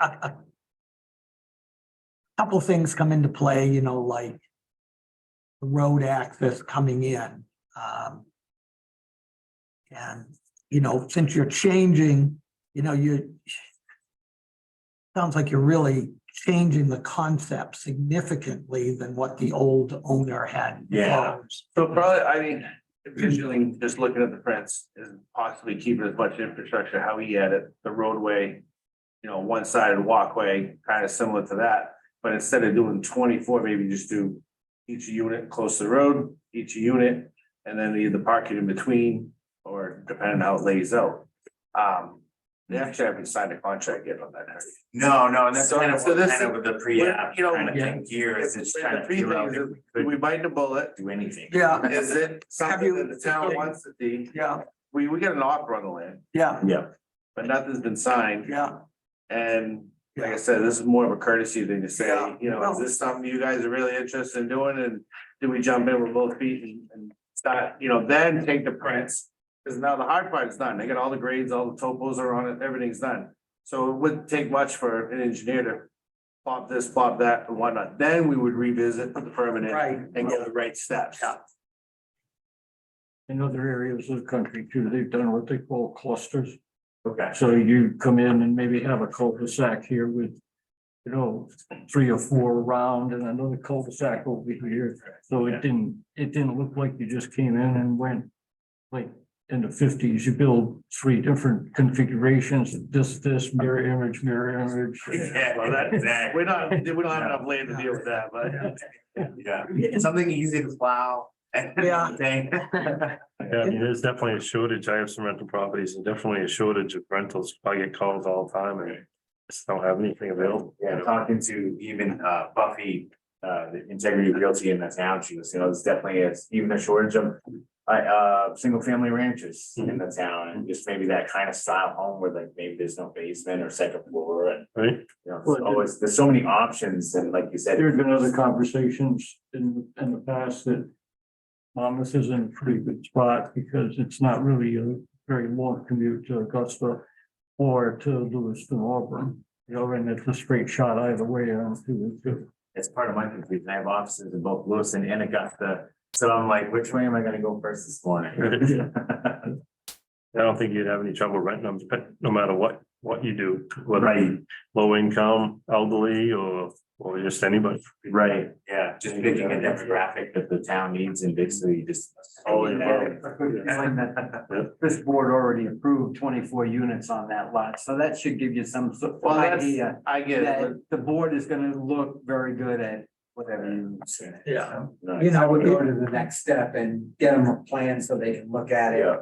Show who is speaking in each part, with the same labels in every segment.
Speaker 1: a, a couple things come into play, you know, like the road access coming in. Um, and, you know, since you're changing, you know, you sounds like you're really changing the concept significantly than what the old owner had.
Speaker 2: Yeah.
Speaker 1: proposed.
Speaker 2: So probably, I mean, visually, just looking at the prints is possibly keeping as much infrastructure, how he had it, the roadway. You know, one sided walkway, kind of similar to that, but instead of doing twenty four, maybe just do. Each unit close to the road, each unit, and then either park it in between, or depending how it lays out. Um, they actually haven't signed a contract yet on that.
Speaker 3: No, no, and that's
Speaker 2: So-
Speaker 3: kind of
Speaker 2: so
Speaker 3: what
Speaker 2: this
Speaker 3: kind of with the pre-app,
Speaker 2: you know,
Speaker 3: kind of
Speaker 1: yeah.
Speaker 3: thing here is it's trying to
Speaker 2: The pre
Speaker 3: figure out
Speaker 2: thing
Speaker 3: if
Speaker 2: is,
Speaker 3: we
Speaker 2: if we
Speaker 3: could
Speaker 2: bite the bullet,
Speaker 3: do anything.
Speaker 1: Yeah,
Speaker 2: is it something
Speaker 1: you-
Speaker 2: that the town wants to be,
Speaker 1: yeah,
Speaker 2: we, we got an offer on the land,
Speaker 1: yeah,
Speaker 2: but nothing's been signed.
Speaker 1: yeah.
Speaker 2: And like
Speaker 1: Yeah.
Speaker 2: I said, this is more of a courtesy thing to say,
Speaker 1: Yeah,
Speaker 2: you know,
Speaker 1: well-
Speaker 2: is this something you guys are really interested in doing and do we jump in with both feet and, and start, you know, then take the prints? Cause now the hard part is done. They got all the grades, all the topos are on it, everything's done. So it wouldn't take much for an engineer to pop this, pop that and whatnot. Then we would revisit the permanent
Speaker 1: Right.
Speaker 2: and go the right steps.
Speaker 1: Yeah.
Speaker 4: In other areas of the country too, they've done what they call clusters.
Speaker 3: Okay,
Speaker 4: So you come in and maybe have a cul-de-sac here with, you know, three or four around and another cul-de-sac over here. So it didn't, it didn't look like you just came in and went, like, in the fifties, you build three different configurations, this, this, mirror image, mirror image.
Speaker 3: yeah, well, that's that,
Speaker 2: We're not, we don't have enough land to deal with that, but.
Speaker 3: yeah, something easy to plow. and
Speaker 1: Yeah.
Speaker 3: thing.
Speaker 5: Yeah, I mean, there's definitely a shortage. I have some rental properties and definitely a shortage of rentals. I get calls all the time and just don't have anything available. you
Speaker 3: Yeah,
Speaker 5: know?
Speaker 3: talking to even uh Buffy, uh the Integrity Realty in the town, she was, you know, there's definitely is even a shortage of. I uh, single family ranches
Speaker 5: Mm-hmm.
Speaker 3: in the town and just maybe that kind of style home where like maybe there's no basement or second floor and.
Speaker 5: Right?
Speaker 3: You know,
Speaker 4: Well,
Speaker 3: there's
Speaker 4: it-
Speaker 3: always, there's so many options and like you said.
Speaker 4: There have been other conversations in, in the past that Monmouth is in a pretty good spot because it's not really a very long commute to Augusta or to Lewiston Auburn, you know, and it's a straight shot either way on two and two.
Speaker 3: It's part of my confusion. I have offices in both Lewiston and Augusta. So I'm like, which way am I gonna go first this morning?
Speaker 5: I don't think you'd have any trouble renting them, but no matter what, what you do, whether you low income, elderly, or, or just anybody.
Speaker 3: Right, yeah, just picking a demographic that the town needs and basically just.
Speaker 5: All involved.
Speaker 6: This board already approved twenty-four units on that lot, so that should give you some sort of
Speaker 2: Well, that's-
Speaker 6: idea
Speaker 2: I get it, but
Speaker 6: that the board is gonna look very good at whatever you.
Speaker 1: Yeah.
Speaker 3: Nice.
Speaker 6: You know, we go to the next step and get them a plan so they can look at it,
Speaker 3: Yeah,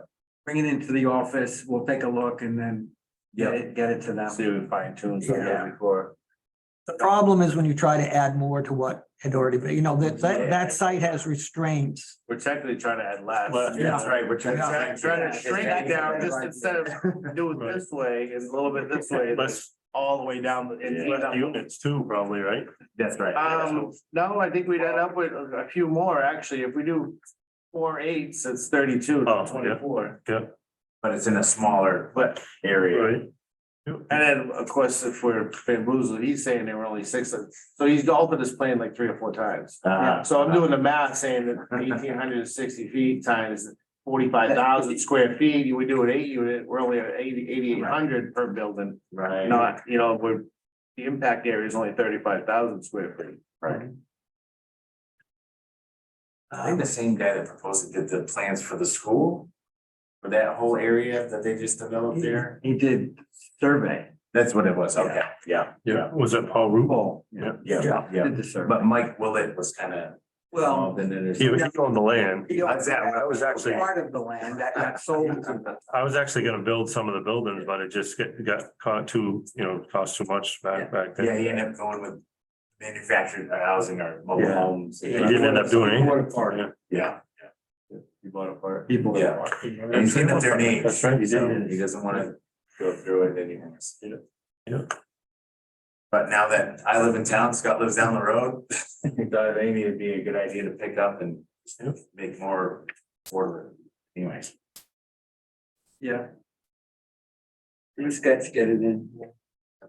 Speaker 6: bring it into the office, we'll take a look and then get it, get it to them.
Speaker 2: see if we fine tune
Speaker 1: Yeah.
Speaker 2: something before.
Speaker 1: The problem is when you try to add more to what had already been, you know, that, that, that site has restraints.
Speaker 2: We're technically trying to add less.
Speaker 3: Well, that's right, we're trying.
Speaker 2: Trying trying to shrink it down, just instead of doing
Speaker 5: Right.
Speaker 2: this way, it's a little bit this way, it's
Speaker 5: Less,
Speaker 2: all the way down. the- it's
Speaker 5: less
Speaker 2: down.
Speaker 5: units too, probably, right?
Speaker 3: That's right.
Speaker 2: Um, no, I think we'd end up with a a few more, actually, if we do four eights, it's thirty-two,
Speaker 5: Oh,
Speaker 2: not
Speaker 5: yeah.
Speaker 2: twenty-four.
Speaker 3: But it's in a smaller
Speaker 2: But,
Speaker 3: area.
Speaker 5: Right?
Speaker 2: and then, of course, if we're bamboozled, he's saying there were only six, of- so he's altered his plan like three or four times.
Speaker 6: Ah.
Speaker 3: Uh,
Speaker 2: So I'm doing the math saying that eighteen hundred and sixty feet times forty-five thousand square feet, you would do an eight unit, we're only at eighty, eighty-eight hundred per building.
Speaker 3: Right.
Speaker 2: Not, you know, we're, the impact area is only thirty-five thousand square feet.
Speaker 3: Right. I think the same guy that proposed it did the plans for the school. For that whole area that they just developed there.
Speaker 6: He did survey,
Speaker 3: That's what it was, okay, yeah,
Speaker 5: Yeah. Was it Paul Rubel?
Speaker 6: Paul
Speaker 3: yeah, yeah.
Speaker 6: did the survey.
Speaker 3: But Mike Willett was kind of.
Speaker 2: um,
Speaker 6: Well,
Speaker 3: Then there's.
Speaker 5: He was on the land.
Speaker 6: he owned
Speaker 3: That's that, I was actually-
Speaker 6: Part of the land that got sold to the
Speaker 5: I was actually gonna build some of the buildings, but it just get, got caught too, you know, cost too much back, back then.
Speaker 3: Yeah, he ended up going with manufactured housing or mobile
Speaker 5: Yeah.
Speaker 3: homes.
Speaker 5: He didn't end up doing anything.
Speaker 3: Yeah, yeah,
Speaker 2: You bought a part.
Speaker 6: people.
Speaker 3: yeah. And he's in their names,
Speaker 5: That's right, he
Speaker 3: so
Speaker 5: did.
Speaker 3: he doesn't wanna go through it anymore.
Speaker 5: Yeah. Yeah.
Speaker 3: But now that I live in town, Scott lives down the road, I thought maybe it'd be a good idea to pick up and make more order. Anyways,
Speaker 6: Yeah. These guys get it in.